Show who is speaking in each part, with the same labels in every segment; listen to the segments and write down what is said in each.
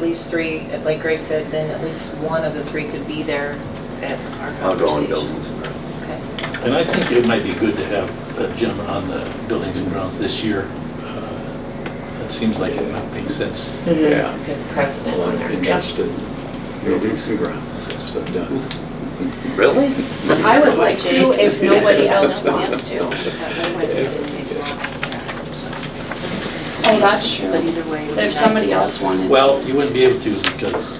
Speaker 1: least three, like Greg said, then at least one of the three could be there at our conversation.
Speaker 2: Outgoing buildings. and that.
Speaker 1: Okay.
Speaker 3: And I think it might be good to have a gentleman on the buildings and grounds this year. Uh, That seems like it might make sense.
Speaker 4: Mm-hmm.
Speaker 2: Yeah.
Speaker 5: Good precedent on there.
Speaker 6: Interested buildings and grounds, that's what I've done.
Speaker 2: Really?
Speaker 5: I would like to if nobody else wants to.
Speaker 1: That would make a lot of sense, so.
Speaker 5: Oh, that's true.
Speaker 1: But either way. it would be
Speaker 5: If somebody
Speaker 1: nice to-
Speaker 5: else wanted to.
Speaker 3: Well, you wouldn't be able to because.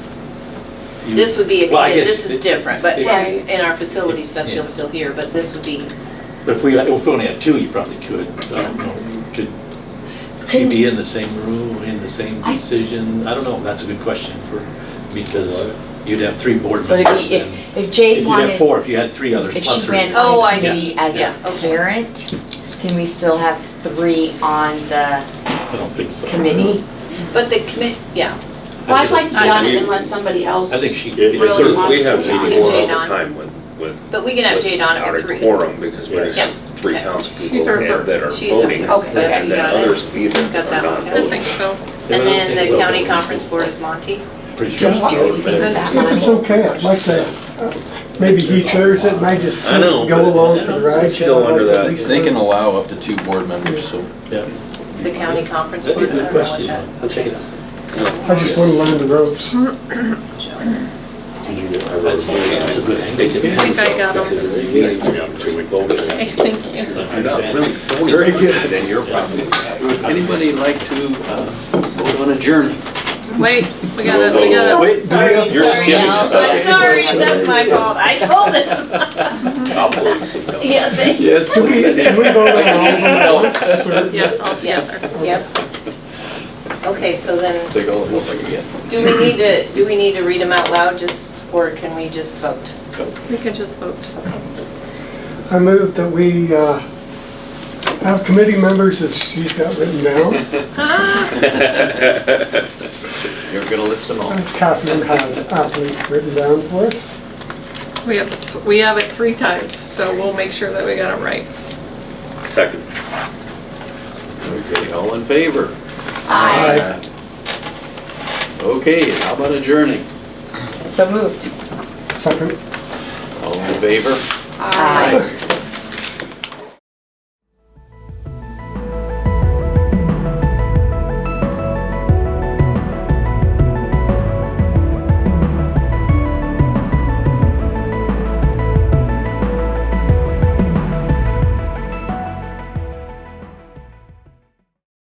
Speaker 3: you-
Speaker 1: This would be, a-
Speaker 3: Well, I guess
Speaker 1: this is
Speaker 3: it-
Speaker 1: different, but
Speaker 5: Yeah.
Speaker 1: in in our facility stuff,
Speaker 3: Yeah.
Speaker 1: she'll still hear, but this would be,
Speaker 3: But if we, if we only had two, you probably could. I don't know. Could she be in the same room, in the same
Speaker 5: I-
Speaker 3: decision? I don't know. That's a good question for, because you'd have three board
Speaker 4: But
Speaker 3: members.
Speaker 4: if,
Speaker 3: and-
Speaker 4: if- if
Speaker 3: If you
Speaker 4: Jade
Speaker 3: had
Speaker 4: wanted,
Speaker 3: four, if you had three others
Speaker 4: if
Speaker 3: plus
Speaker 4: she
Speaker 3: her.
Speaker 4: went
Speaker 1: Oh, I
Speaker 4: on the committee
Speaker 1: see.
Speaker 4: as
Speaker 1: Yeah,
Speaker 4: a
Speaker 1: okay.
Speaker 4: parent, can we still have three on the
Speaker 3: I don't think so.
Speaker 4: committee?
Speaker 1: but the commit, yeah.
Speaker 5: Well, I'd like to be on
Speaker 2: I-
Speaker 5: it unless somebody else.
Speaker 3: I think she.
Speaker 5: Really
Speaker 2: So
Speaker 5: wants
Speaker 2: We
Speaker 5: to
Speaker 2: have
Speaker 5: be on.
Speaker 2: Jade on all
Speaker 1: Jade
Speaker 2: the
Speaker 1: on.
Speaker 2: time with, with.
Speaker 1: But we can have Jade on at
Speaker 2: without a
Speaker 1: three.
Speaker 2: Quorum because we
Speaker 3: Yeah.
Speaker 2: have three
Speaker 1: Okay.
Speaker 2: council
Speaker 5: She's
Speaker 2: people
Speaker 5: our
Speaker 2: that
Speaker 5: third.
Speaker 2: that are
Speaker 1: She's our
Speaker 2: voting.
Speaker 1: third.
Speaker 5: Okay.
Speaker 1: Yeah,
Speaker 2: And
Speaker 1: you
Speaker 2: then
Speaker 1: got it.
Speaker 2: others either
Speaker 1: Got
Speaker 2: are
Speaker 1: that
Speaker 2: not
Speaker 1: one. I
Speaker 2: voting.
Speaker 1: think so.
Speaker 3: Yeah,
Speaker 1: And
Speaker 3: I don't
Speaker 1: then
Speaker 3: think
Speaker 1: the
Speaker 3: so.
Speaker 1: county conference board is Monty.
Speaker 3: Pretty
Speaker 4: Do
Speaker 3: sure.
Speaker 4: we do anything with that,
Speaker 7: If it's
Speaker 4: Monty?
Speaker 7: okay, I'd like to, maybe he chairs it and I just
Speaker 2: I know,
Speaker 7: go
Speaker 2: but-
Speaker 7: along for the ride.
Speaker 2: It's still
Speaker 7: I'd like
Speaker 2: under
Speaker 7: to at
Speaker 2: that.
Speaker 7: least
Speaker 8: They can
Speaker 7: learn.
Speaker 8: allow up to two board members, so.
Speaker 3: Yeah.
Speaker 1: The county conference
Speaker 3: That's a
Speaker 1: board. I
Speaker 3: good
Speaker 1: don't know what
Speaker 3: question.
Speaker 1: that.
Speaker 3: I'll check it out.
Speaker 7: I just want to learn the ropes.
Speaker 3: That's that's a good
Speaker 2: They
Speaker 3: angle.
Speaker 2: can
Speaker 3: Yeah.
Speaker 2: pass
Speaker 9: I
Speaker 2: out
Speaker 9: got 'em.
Speaker 2: because if you need to, if you vote, if
Speaker 9: Thank you.
Speaker 2: you're not
Speaker 3: Understand.
Speaker 2: really voting. Very good. Then you're probably.
Speaker 6: Would anybody like to uh, vote on adjourning?
Speaker 9: Wait, we gotta, we gotta.
Speaker 6: Wait,
Speaker 1: Sorry,
Speaker 6: You're
Speaker 1: sorry,
Speaker 6: skipping
Speaker 1: Al.
Speaker 6: stuff.
Speaker 1: I'm sorry, that's my fault, I told him.
Speaker 2: I'll vote something.
Speaker 1: Yeah, they,
Speaker 6: Yes,
Speaker 7: Can we, can we go along with the ropes?
Speaker 9: Yeah, it's all together.
Speaker 1: yep. Okay, so then,
Speaker 6: Take all the help I can get.
Speaker 1: do we need to, do we need to read them out loud just, or can we just vote?
Speaker 9: We could just vote.
Speaker 7: I move that we uh, have committee members as she's got written down,
Speaker 6: You're gonna list them all.
Speaker 7: as Catherine has aptly written down for us.
Speaker 9: We have, we have it three times, so we'll make sure that we got it right.
Speaker 2: Second.
Speaker 6: Okay, all in favor?
Speaker 5: Aye.
Speaker 6: Okay, how about adjourning?
Speaker 4: So moved.
Speaker 7: Second.
Speaker 6: All in favor?
Speaker 9: Aye.